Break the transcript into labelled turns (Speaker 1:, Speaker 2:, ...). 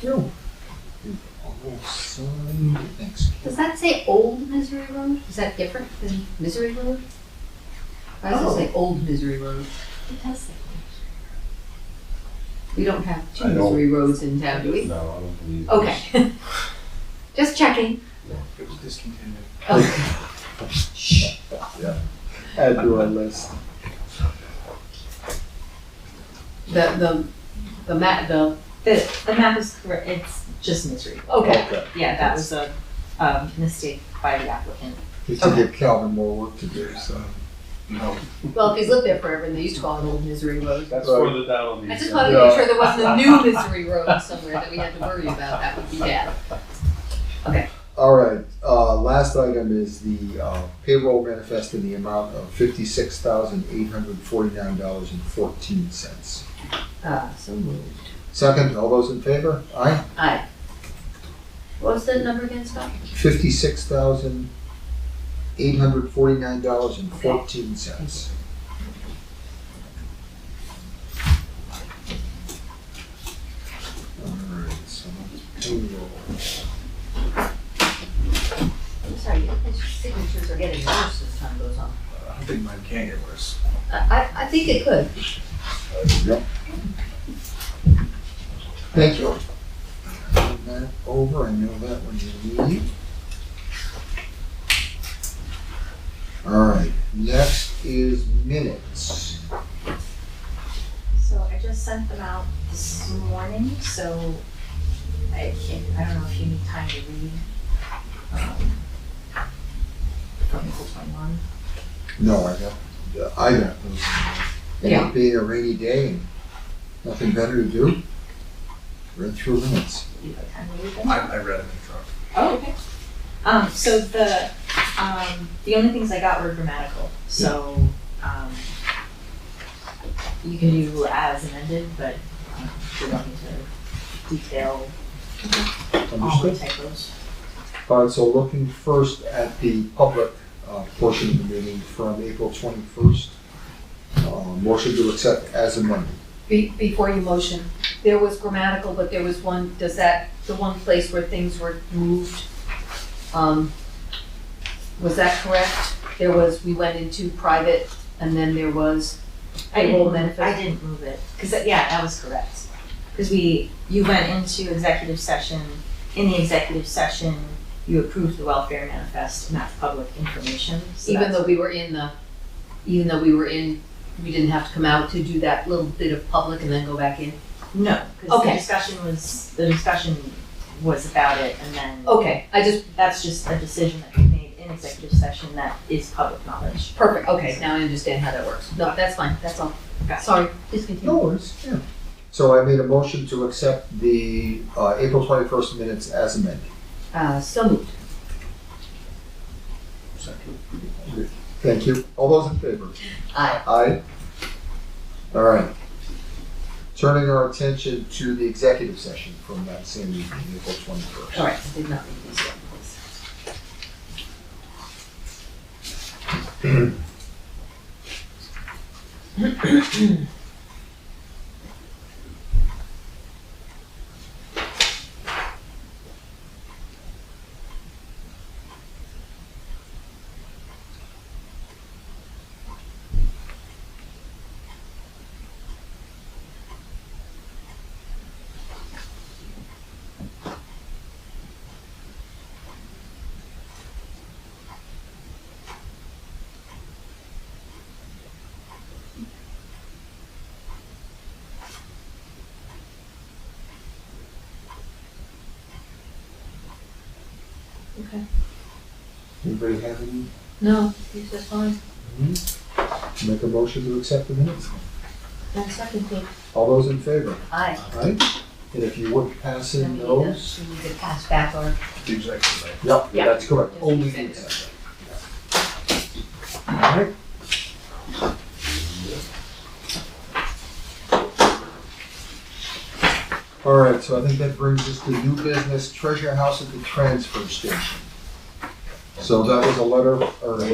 Speaker 1: True. So many things.
Speaker 2: Does that say Old Misery Road? Is that different than Misery Road? Why does
Speaker 1: Oh.
Speaker 2: it say Old Misery Road? It does say. We don't have two
Speaker 3: I don't-
Speaker 2: misery roads in town, do we?
Speaker 3: No, I don't believe. it.
Speaker 2: Okay. Just checking.
Speaker 1: It was discontinued.
Speaker 2: Okay.
Speaker 1: Oh.
Speaker 2: Shh.
Speaker 4: Add to our list.
Speaker 2: The, the, the ma, the,
Speaker 5: The, the map is correct, it's just misery.
Speaker 2: okay.
Speaker 5: Yeah, that was a, um, mistake by the applicant.
Speaker 1: They did give Calvin more work to do, so. No.
Speaker 2: Well, if he's lived there forever, and they used to call it Old Misery Road.
Speaker 4: That's right.
Speaker 3: further down on the.
Speaker 2: I just
Speaker 3: agenda.
Speaker 2: wanted to make sure there wasn't a new misery road somewhere that we had to worry about. That would be bad.
Speaker 1: All right, uh, last item is the uh, payroll manifest in the amount of fifty-six thousand eight hundred forty-nine dollars and fourteen cents.
Speaker 2: Uh, so moved.
Speaker 1: Second, all those in favor? Aye.
Speaker 2: Aye. What was that number again, Scott?
Speaker 1: Fifty-six thousand eight hundred forty-nine dollars and fourteen cents. All right, so that's payroll.
Speaker 2: I'm sorry, these signatures are getting worse as time goes on.
Speaker 4: I think mine can get worse.
Speaker 2: I, I, I think it could.
Speaker 1: Thank you. Put That over, I know that when you leave. All right, next is minutes.
Speaker 5: So I just sent them out this morning, so I can't, I don't know if you need time to read. um, From April twenty-one.
Speaker 1: No, I got, I got those. And
Speaker 2: Yeah.
Speaker 1: it being a rainy day and nothing better to do, read through minutes.
Speaker 5: You have time to read them?
Speaker 4: I, I read it in the truck.
Speaker 5: Oh, okay. Um, so the, um, the only things I got were grammatical, so, um, you can do as amended, but um, you don't need to detail all the
Speaker 1: Understood?
Speaker 5: typos.
Speaker 1: All right, so looking first at the public uh, portion of the meeting from April twenty-first. uh, Motion to accept as amended.
Speaker 2: Be, before you motion, there was grammatical, but there was one, does that, the one place where things were moved? Um, was that correct? There was, we went into private and then there was,
Speaker 5: I
Speaker 2: Table
Speaker 5: didn't,
Speaker 2: manifest.
Speaker 5: I didn't move it, cause that- yeah, that was correct. Cause we, you went into executive session, in the executive session, you approved the welfare manifest and that's public information, so
Speaker 2: even
Speaker 5: that's-
Speaker 2: though we were in the, even though we were in, we didn't have to come out to do that little bit of public and then go back in?
Speaker 5: No, cause the
Speaker 2: Okay.
Speaker 5: discussion was, the discussion was about it and then.
Speaker 2: Okay, I just,
Speaker 5: That's just a decision that we made in executive session that is public knowledge.
Speaker 2: perfect, okay, now I understand how that works. No, that's fine, that's all.
Speaker 5: Got it.
Speaker 2: Sorry, please continue.
Speaker 1: No worries, yeah. So I made a motion to accept the uh, April 21st minutes as amended.
Speaker 2: Uh, so moved.
Speaker 1: Thank you. All those in favor?
Speaker 2: Aye.
Speaker 1: Aye. All right. Turning our attention to the executive session from that same evening, April 21st.
Speaker 2: All right, I did not read these yet.
Speaker 1: Anybody have any,
Speaker 2: No, these are fine.
Speaker 1: make a motion to accept the minutes?
Speaker 2: And second thing,
Speaker 1: All those in favor?
Speaker 2: aye.
Speaker 1: Aye. And if you would pass
Speaker 2: Then
Speaker 1: in
Speaker 2: we need
Speaker 1: those.
Speaker 2: to, uh, we need to pass back our,
Speaker 4: The executive. right?
Speaker 1: Yep,
Speaker 2: Yeah.
Speaker 1: that's correct.
Speaker 2: Just
Speaker 1: Only the
Speaker 2: executive.
Speaker 1: executive. All right. All right, so I think that brings us to new business, Treasure House at the Transfer Station. So that was a letter, or a